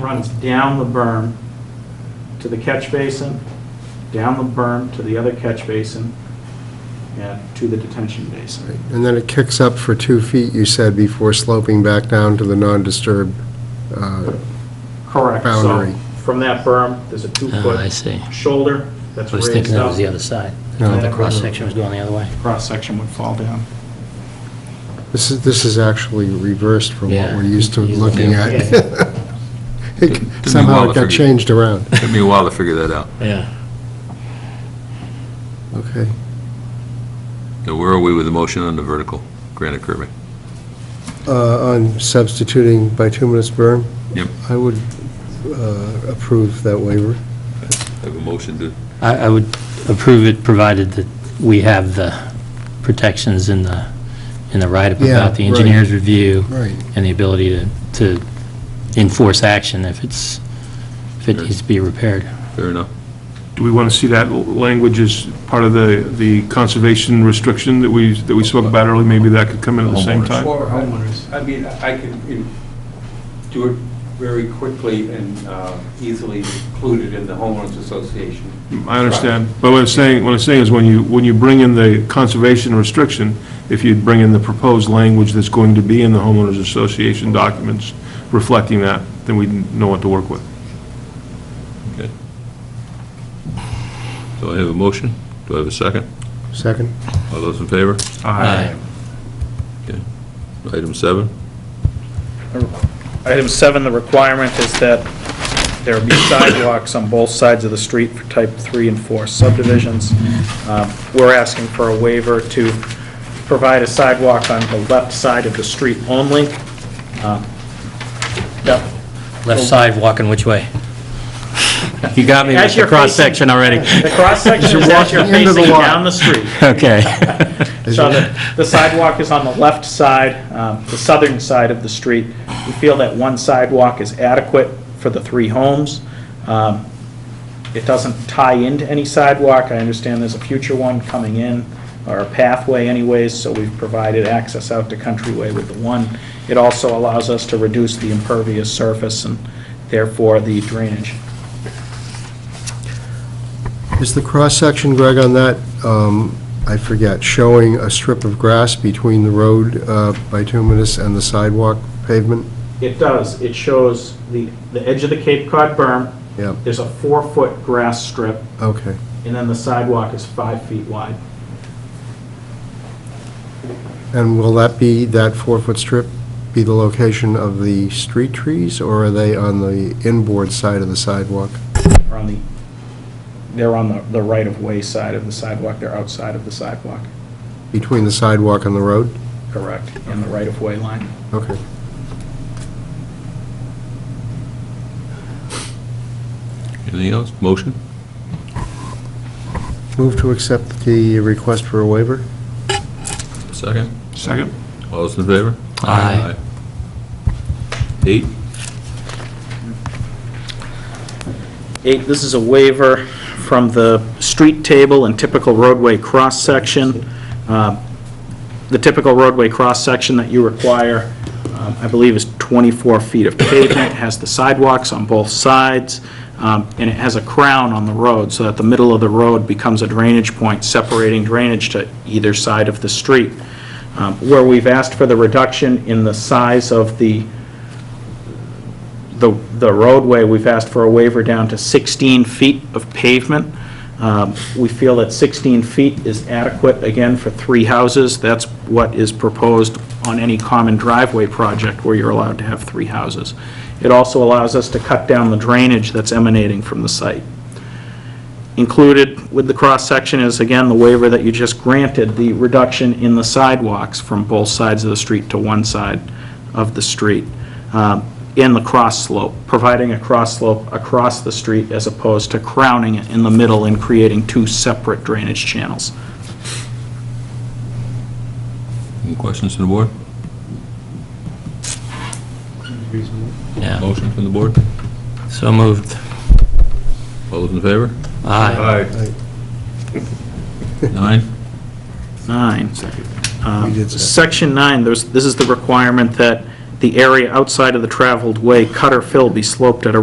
runs down the berm to the catch basin, down the berm to the other catch basin, and to the detention basin. And then it kicks up for two feet, you said, before sloping back down to the non-disturbed, uh, Correct. So Boundary. from that berm, there's a Oh, I two-foot see. shoulder that's I was thinking raised that was the up. other side. No. I thought The cross-section was going the other way. Cross-section would fall down. this is, this is actually reversed from what Yeah. we're used to Yeah. looking at. Yeah. It- Somehow it got changed around. Took me a while to figure that out. Yeah. Okay. Now, where are we with the motion on the vertical granite curbing? Uh, On substituting bituminous berm? Yep. I would uh, approve that waiver. I have a motion to, I, I would approve it provided that we have the protections in the, in the write-up Yeah, about the right. engineer's review Right. and the ability to, to enforce action if it's, if it Sure. needs to be repaired. fair enough. Do we want to see that l- language as part of the, the conservation restriction that we, that we spoke about earlier? Maybe that could come in at the same time? Or, I Homeowners. I mean, I can in- do it very quickly and uh, easily include it in the homeowners association. I understand, but what I'm saying, what I'm saying is when you, when you bring in the conservation restriction, if you bring in the proposed language that's going to be in the homeowners association documents reflecting that, then we know what to work with. Okay. So I have a motion. Do I have a second? Second? All those in favor? Aye. Item seven? Item seven, the requirement is that there be sidewalks on both sides of the street for type three and four subdivisions. Um, We're asking for a waiver to provide a sidewalk on the left side of the street only. Um, Yep. Left side walking which way? You got me As with the you're cross-section already. The cross-section is as you're walking into the facing lot. down the street. Okay. So the the sidewalk is on the left side, um, the southern side of the street. We feel that one sidewalk is adequate for the three homes. Um, It doesn't tie into any sidewalk. I understand there's a future one coming in, or a pathway anyways, so we've provided access out to Countryway with the one. It also allows us to reduce the impervious surface and therefore the drainage. Is the cross-section, Greg, on that, um, I forget, showing a strip of grass between the road uh, bituminous and the sidewalk pavement? It does. It shows the, the edge of the Cape Cod berm. Yep. There's a four-foot grass strip, Okay. and then the sidewalk is five feet wide. And will that be, that four-foot strip, be the location of the street trees, or are they on the inboard side of the sidewalk? They're on the, they're on the- the right-of-way side of the sidewalk. They're outside of the sidewalk. Between the sidewalk and the road? Correct, in the right-of-way line. Okay. Anything else? Motion? Move to accept the request for a waiver? Second? Second? All those in favor? Aye. Aye. Eight? Eight, this is a waiver from the street table and typical roadway cross-section. Um, The typical roadway cross-section that you require, um, I believe, is 24 feet of pavement, It has the sidewalks on both sides, um, and it has a crown on the road, so that the middle of the road becomes a drainage point, separating drainage to either side of the street. Um, Where we've asked for the reduction in the size of the the the roadway, we've asked for a waiver down to 16 feet of pavement. Um, We feel that 16 feet is adequate, again, for three houses. That's what is proposed on any common driveway project where you're allowed to have three houses. It also allows us to cut down the drainage that's emanating from the site. Included with the cross-section is, again, the waiver that you just granted, the reduction in the sidewalks from both sides of the street to one side of the street, um, in the cross-slope, providing a cross-slope across the street as opposed to crowning it in the middle and creating two separate drainage channels. Any questions from the board? Yeah, Motion from the board? so moved. All those in favor? Aye. Nine? Nine. We Um, did that. Section nine, there's, this is the requirement that the area outside of the traveled way, cut or fill be sloped at a